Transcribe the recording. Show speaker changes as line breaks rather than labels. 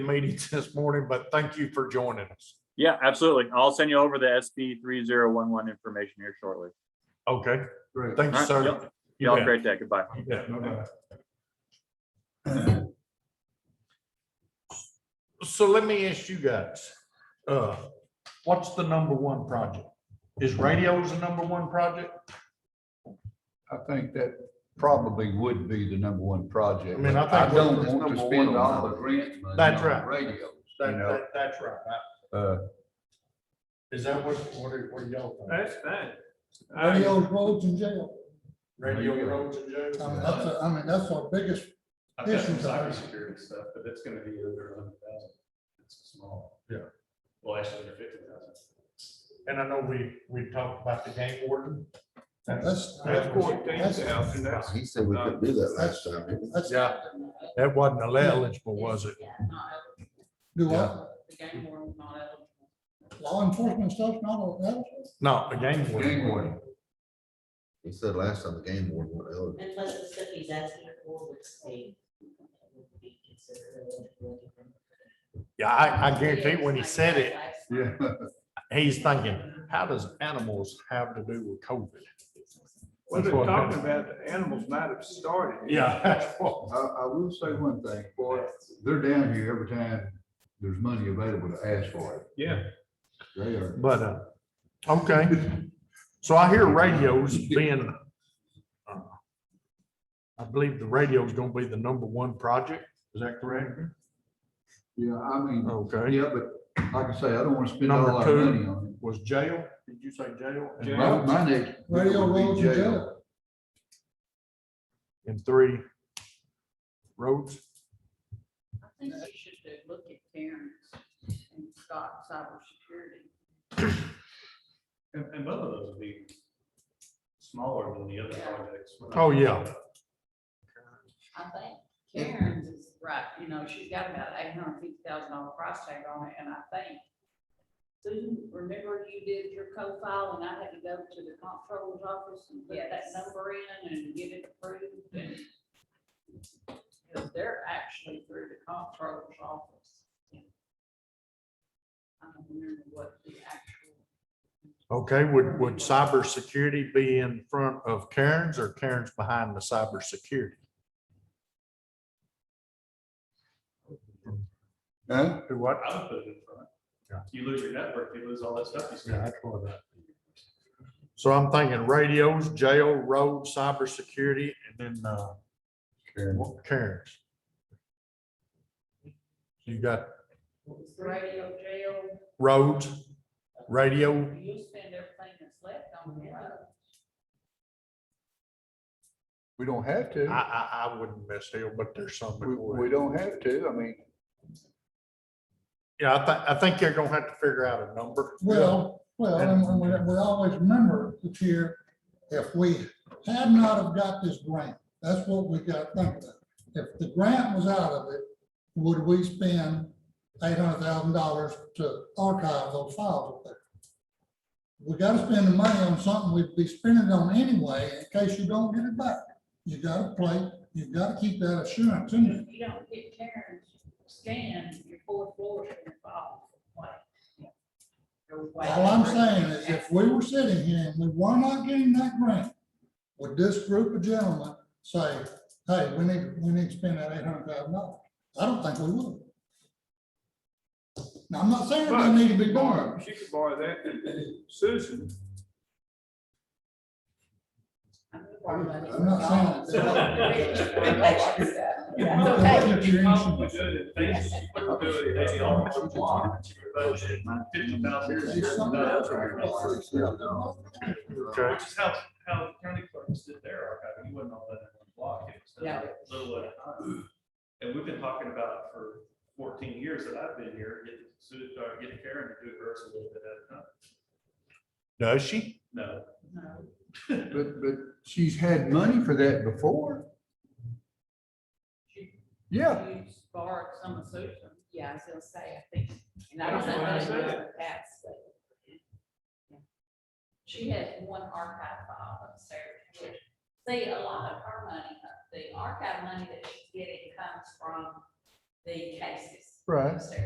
meetings this morning, but thank you for joining us.
Yeah, absolutely. I'll send you over the SB three zero one one information here shortly.
Okay,
Great.
thanks,
All right,
sir.
Y'all y'all have a
bet.
great day. Goodbye.
You bet. So let me ask you guys, uh, what's the number one project? Is radios the number one project?
I think that probably would be the number one project.
I mean, I think
don't
that's
want to
number
spend
one.
all the grant money
That's
on
right.
Radios, you
That,
know,
that, that's right.
uh,
Is that what, what are, what are y'all? think?
That's fine. I
Radio roads and jail.
Radio roads and
I mean,
jails?
that's,
Uh,
a- I mean, that's our biggest,
I've got some
Issues are-
cybersecurity stuff, but that's gonna be under a hundred thousand. It's small.
Yeah.
Well, actually, under fifty thousand.
And I know we, we talked about the game warden.
that's,
That's
that's,
fourteen thousand, that's,
He said we couldn't do that last time. didn't he?
that's,
Yeah, that wasn't eligible, was it?
Yeah, not eligible.
do what,
The game warden's not eligible.
law enforcement stuff's not on that.
No, the game warden.
gang warden.
He said last time the game board went over.
And plus the stuff he's asking for would stay. would be considered eligible.
Yeah, I, I guarantee when he said it,
Yeah.
he's thinking, how does animals have to do with COVID?
well, they're talking about the animals might have started. it.
Yeah. that's what-
I, I will say one thing, boy, they're down here every time there's money available to ask for
Yeah,
it. They are.
But, uh, okay, so I hear radios being, uh, I believe the radio is gonna be the number one project, is that correct?
Yeah, I mean,
Okay,
yeah, but like I say, I don't want to spend all
Oh, Number
our
two.
money on
was jail, did you say jail? And
it.
Jail.
My,
road-
my next. bill would
Radio
be
roads and jail.
And three, roads,
I think you should do- look at Karen's and Scott's cybersecurity.
And, and both of those would be smaller than the other projects.
Oh, yeah.
I think Karen's is right, you know, she's got about eight hundred fifty thousand dollar price tag on it, and I think. Susan, remember you did your co-file and I had to go to the comptroller's office and put that number in and get it approved and. Cause they're actually through the comptroller's office. I don't remember what the actual.
okay, would, would cybersecurity be in front of Karen's or Karen's behind the cybersecurity?
Huh?
Do what?
I would put it in front. You lose your network, you lose all that stuff. you
Yeah,
spend.
that's what I- So I'm thinking radios, jail, road, cybersecurity, and then, uh, what- Karen's. You got
Radio jail,
roads, radio,
you'll spend everything that's left on it.
We don't have
I,
to.
I, I wouldn't miss Hill, but there's some. that
We,
would.
we don't have to. I mean,
Yeah, I think, I think you're gonna have to figure out a number.
Well, well, and we, we always remember the tier, if we had not have got this grant, that's what we got to think about. If the grant was out of it, would we spend eight hundred thousand dollars to archive those files up there? We gotta spend the money on something we'd be spending it on anyway, in case you don't get it back. You gotta play, you gotta keep that assurance in there.
If you don't get Karen's scan, your fourth floor is gonna fall.
All I'm saying is if we were sitting here and we were not getting that grant, would this group of gentlemen say, hey, we need, we need to spend that eight hundred thousand dollars? I don't think we would. Now, I'm not saying
But-
they need to be borrowed.
she could borrow that. Susan,
I'm not saying.
We're doing it, thanks. We're doing it, they all want to budget, fifty thousand.
It's something else.
Okay.
Which is how, how county clerks did their archive, you wouldn't all let it block, it was done a little at a time. And we've been talking about it for fourteen years that I've been here, getting Sue, or getting Karen to do hers a little bit at a time.
Does she?
No,
but, but she's had money for that before. Yeah,
You borrowed some of Susan. Yeah, I was gonna say, I think. and I
That's what I
don't know
said.
if it passed, but- She had one archive file upstairs. which- See, a lot of her money, the archive money that she's getting comes from the cases.
Right.
upstairs.